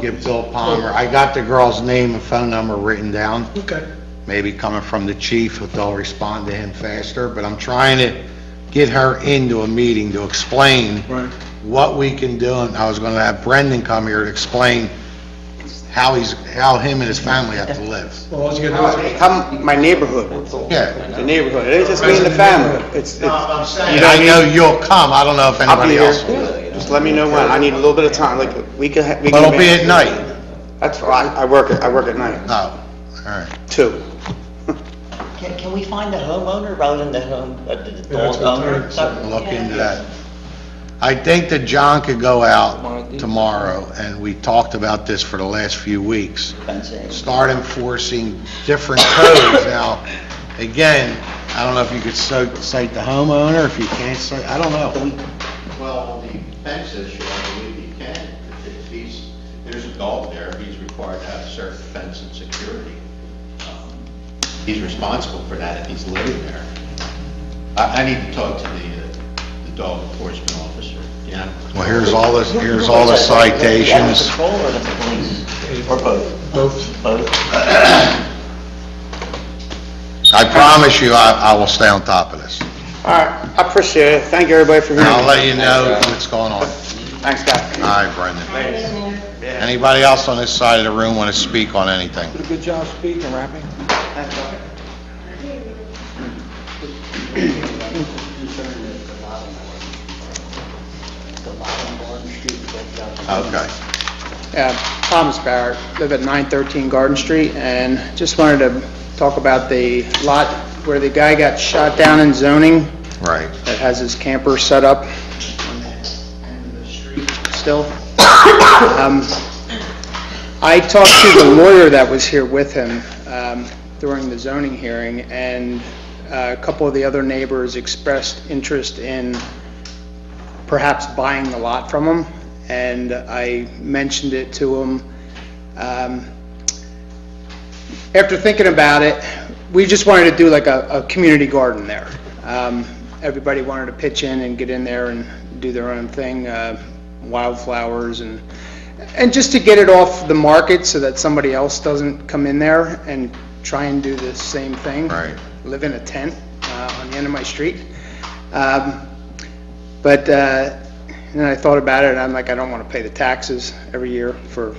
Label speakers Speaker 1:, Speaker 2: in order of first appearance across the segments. Speaker 1: give Bill Palmer, I got the girl's name and phone number written down,
Speaker 2: Okay.
Speaker 1: maybe coming from the chief, if they'll respond to him faster, but I'm trying to get her into a meeting to explain
Speaker 2: Right.
Speaker 1: what we can do, and I was gonna have Brendan come here to explain how he's, how him and his family have to live.
Speaker 2: Well, all you gotta do is,
Speaker 3: Come, my neighborhood,
Speaker 1: Yeah.
Speaker 3: the neighborhood, it ain't just me and the family, it's, it's,
Speaker 1: I'm saying. I know you'll come, I don't know if
Speaker 3: I'll
Speaker 1: anybody
Speaker 3: be here.
Speaker 1: else will.
Speaker 3: Just let me know when, I need a little bit of time, like, we could, ha- we
Speaker 1: But
Speaker 3: can.
Speaker 1: it'll be
Speaker 3: make-
Speaker 1: at night.
Speaker 3: That's, I, I work, at- I work at night,
Speaker 1: Oh, all right.
Speaker 3: two.
Speaker 4: Can, can we find the homeowner rather than the home, uh, the the
Speaker 2: Yeah, that's
Speaker 4: dog
Speaker 2: what Terry
Speaker 4: owner?
Speaker 2: said.
Speaker 1: We'll
Speaker 4: So-
Speaker 1: look into that. I think that John could go out tomorrow, and we talked about this for the last few weeks.
Speaker 4: That's it.
Speaker 1: Start enforcing different codes. Now, again, I don't know if you could so- cite the homeowner, if you can't cite, I don't know.
Speaker 5: Well, the fence issue, I believe he can, if he's, there's a dog there, he's required to have certain fence and security. Um, He's responsible for that if he's living there. I, I need to talk to the, uh, the dog enforcement officer, yeah.
Speaker 1: Well, here's all the, here's all the citations.
Speaker 4: Animal control or the police? Or both?
Speaker 2: both,
Speaker 4: Both.
Speaker 1: I promise you, I, I will stay on top of this.
Speaker 3: All right, I appreciate it, thank you everybody for
Speaker 1: And
Speaker 3: hearing.
Speaker 1: I'll
Speaker 3: me.
Speaker 1: let you know what's going on.
Speaker 3: Thanks, guys.
Speaker 1: All right, Brendan. Anybody else on this side of the room want to speak on anything?
Speaker 3: Good job speaking, rapping.
Speaker 1: Okay.
Speaker 3: Yeah, Thomas Barrett, live at 913 Garden Street, and just wanted to talk about the lot where the guy got shot down in zoning
Speaker 1: Right.
Speaker 3: that has his camper set up on the end of the street still. Um, I talked to the lawyer that was here with him um, during the zoning hearing, and uh, a couple of the other neighbors expressed interest in perhaps buying the lot from him, and I mentioned it to him. Um, After thinking about it, we just wanted to do like a, a community garden there. Um, Everybody wanted to pitch in and get in there and do their own thing, uh, wildflowers and, and just to get it off the market so that somebody else doesn't come in there and try and do the same thing.
Speaker 1: Right.
Speaker 3: Live in a tent uh, on the end of my street. Um, but uh, then I thought about it, and I'm like, I don't want to pay the taxes every year for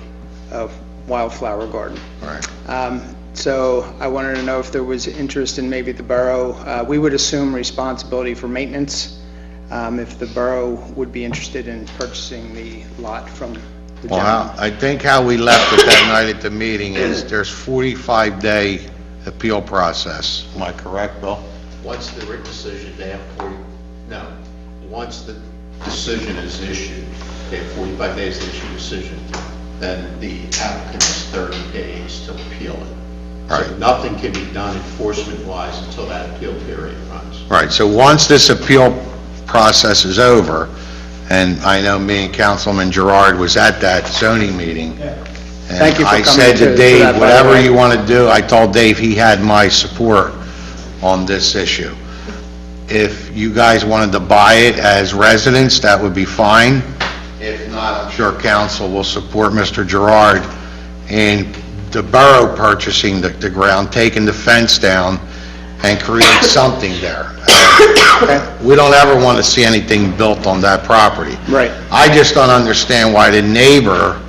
Speaker 3: a wildflower garden.
Speaker 1: Right.
Speaker 3: Um, So I wanted to know if there was interest in maybe the borough, uh, we would assume responsibility for maintenance, um, if the borough would be interested in purchasing the lot from the
Speaker 1: Well, how-
Speaker 3: gentleman.
Speaker 1: I think how we left it that night at the meeting is there's 45-day appeal process. Am I correct, Bill?
Speaker 5: Once the written decision, they have forty, no, once the decision is issued, they have forty-five days to issue a decision, then the applicant has thirty days to appeal it. So
Speaker 1: Right.
Speaker 5: nothing can be done enforcement-wise until that appeal period runs.
Speaker 1: Right, so once this appeal process is over, and I know me and Councilman Gerard was at that zoning meeting.
Speaker 3: Thank you for
Speaker 1: And I said
Speaker 3: coming to-
Speaker 1: to
Speaker 3: to that,
Speaker 1: Dave,
Speaker 3: by the
Speaker 1: whatever
Speaker 3: way."
Speaker 1: you want to do, I told Dave he had my support on this issue. If you guys wanted to buy it as residents, that would be fine. If not, I'm sure council will support Mr. Gerard in the borough purchasing the, the ground, taking the fence down, and create something there. We don't ever want to see anything built on that property.
Speaker 3: Right.
Speaker 1: I just don't understand why the neighbor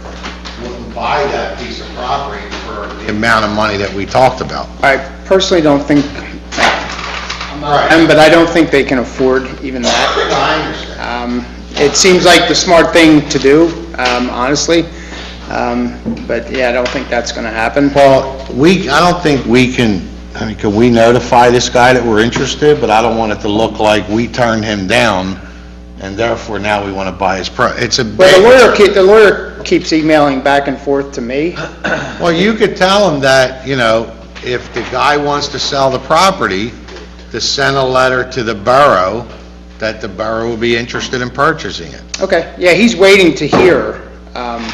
Speaker 1: wouldn't buy that piece of property for the amount of money that we talked about.
Speaker 3: I personally don't think, um, but I don't think they can afford even that.
Speaker 1: I understand.
Speaker 3: Um, It seems like the smart thing to do, um, honestly, Um, but yeah, I don't think that's going to happen.
Speaker 1: Well, we, I don't think we can, I mean, can we notify this guy that we're interested, but I don't want it to look like we turned him down, and therefore now we want to buy his pro, it's a
Speaker 3: Well, the lawyer,
Speaker 1: big...
Speaker 3: ke- the lawyer keeps emailing back and forth to me.
Speaker 1: Well, you could tell him that, you know, if the guy wants to sell the property, to send a letter to the borough, that the borough will be interested in purchasing it.
Speaker 3: Okay, yeah, he's waiting to hear. Um,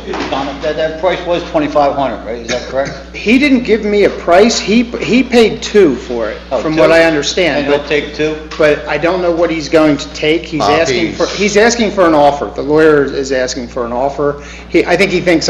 Speaker 5: Excuse me,
Speaker 4: Donna, that, that price was 2,500, right? Is that correct?
Speaker 3: He didn't give me a price, he, he paid two for it,
Speaker 4: Oh,
Speaker 3: from what
Speaker 4: two?
Speaker 3: I understand,
Speaker 4: And
Speaker 3: but
Speaker 4: he'll take two?
Speaker 3: but I don't know what he's going to take. He's asking for,
Speaker 1: Copies.
Speaker 3: he's asking for an offer. The lawyer is asking for an offer. He, I think he thinks